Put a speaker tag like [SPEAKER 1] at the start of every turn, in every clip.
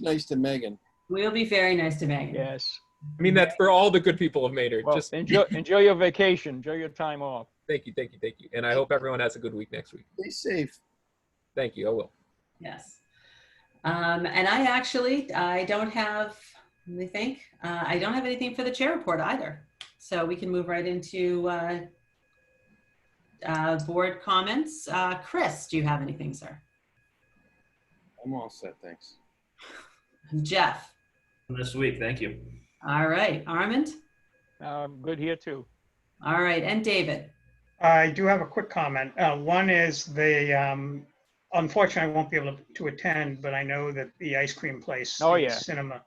[SPEAKER 1] nice to Megan.
[SPEAKER 2] We'll be very nice to Megan.
[SPEAKER 3] Yes.
[SPEAKER 4] I mean that for all the good people of Maynard.
[SPEAKER 3] Well,
[SPEAKER 4] Just
[SPEAKER 3] enjoy, enjoy your vacation. Enjoy your time off.
[SPEAKER 4] thank you, thank you, thank you. And I hope everyone has a good week next week.
[SPEAKER 1] Stay safe.
[SPEAKER 4] Thank you. I will.
[SPEAKER 2] Yes. Um, and I actually, I don't have, let me think, uh, I don't have anything for the chair report either. So we can move right into, uh, uh, board comments. Uh, Chris, do you have anything, sir?
[SPEAKER 1] I'm all set, thanks.
[SPEAKER 2] Jeff?
[SPEAKER 5] This week, thank you.
[SPEAKER 2] All right. Armand?
[SPEAKER 3] Um, good here too.
[SPEAKER 2] All right. And David?
[SPEAKER 6] I do have a quick comment. Uh, One is the, um, unfortunately, I won't be able to attend, but I know that the ice cream place.
[SPEAKER 3] Oh,
[SPEAKER 6] the
[SPEAKER 3] yeah.
[SPEAKER 6] Cinema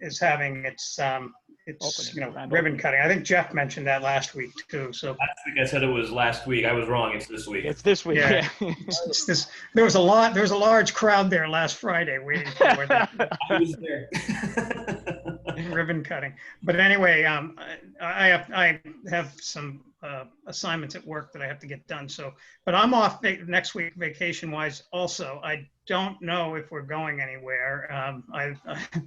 [SPEAKER 6] is having its, um, its,
[SPEAKER 3] Opening,
[SPEAKER 6] you know,
[SPEAKER 3] grand
[SPEAKER 6] ribbon
[SPEAKER 3] opening.
[SPEAKER 6] cutting. I think Jeff mentioned that last week too. So
[SPEAKER 5] Last week I said it was last week. I was wrong. It's this week.
[SPEAKER 3] It's this week.
[SPEAKER 6] Yeah.
[SPEAKER 3] yeah.
[SPEAKER 6] it's- it's this, there was a lot, there was a large crowd there last Friday waiting for the
[SPEAKER 5] I was there.
[SPEAKER 6] ribbon cutting. But anyway, um, I, I, I have some, uh, assignments at work that I have to get done, so. But I'm off va- next week vacation wise also. I don't know if we're going anywhere. Um, I, I-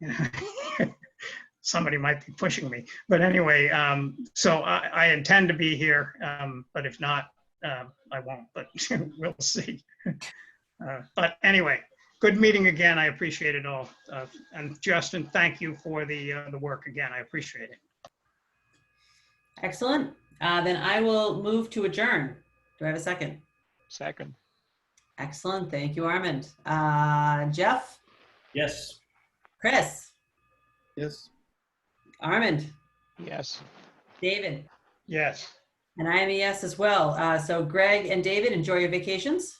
[SPEAKER 6] you know, somebody might be pushing me, but anyway, um, so I, I intend to be here, um, but if not, uh, I won't, but we'll see. Uh, But anyway, good meeting again. I appreciate it all. Uh, And Justin, thank you for the, uh, the work again. I appreciate it.
[SPEAKER 2] Excellent. Uh, then I will move to adjourn. Do I have a second?
[SPEAKER 3] Second.
[SPEAKER 2] Excellent. Thank you, Armand. Uh, Jeff?
[SPEAKER 5] Yes.
[SPEAKER 2] Chris?
[SPEAKER 1] Yes.
[SPEAKER 2] Armand?
[SPEAKER 3] Yes.
[SPEAKER 2] David?
[SPEAKER 6] Yes.
[SPEAKER 2] And I am a yes as well. Uh, so Greg and David, enjoy your vacations.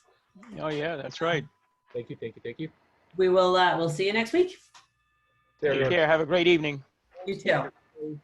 [SPEAKER 3] Oh, yeah, that's right.
[SPEAKER 4] Thank you, thank you, thank you.
[SPEAKER 2] We will, uh, we'll see you next week.
[SPEAKER 4] There we
[SPEAKER 3] Take
[SPEAKER 4] are.
[SPEAKER 3] care. Have a great evening.
[SPEAKER 2] You too.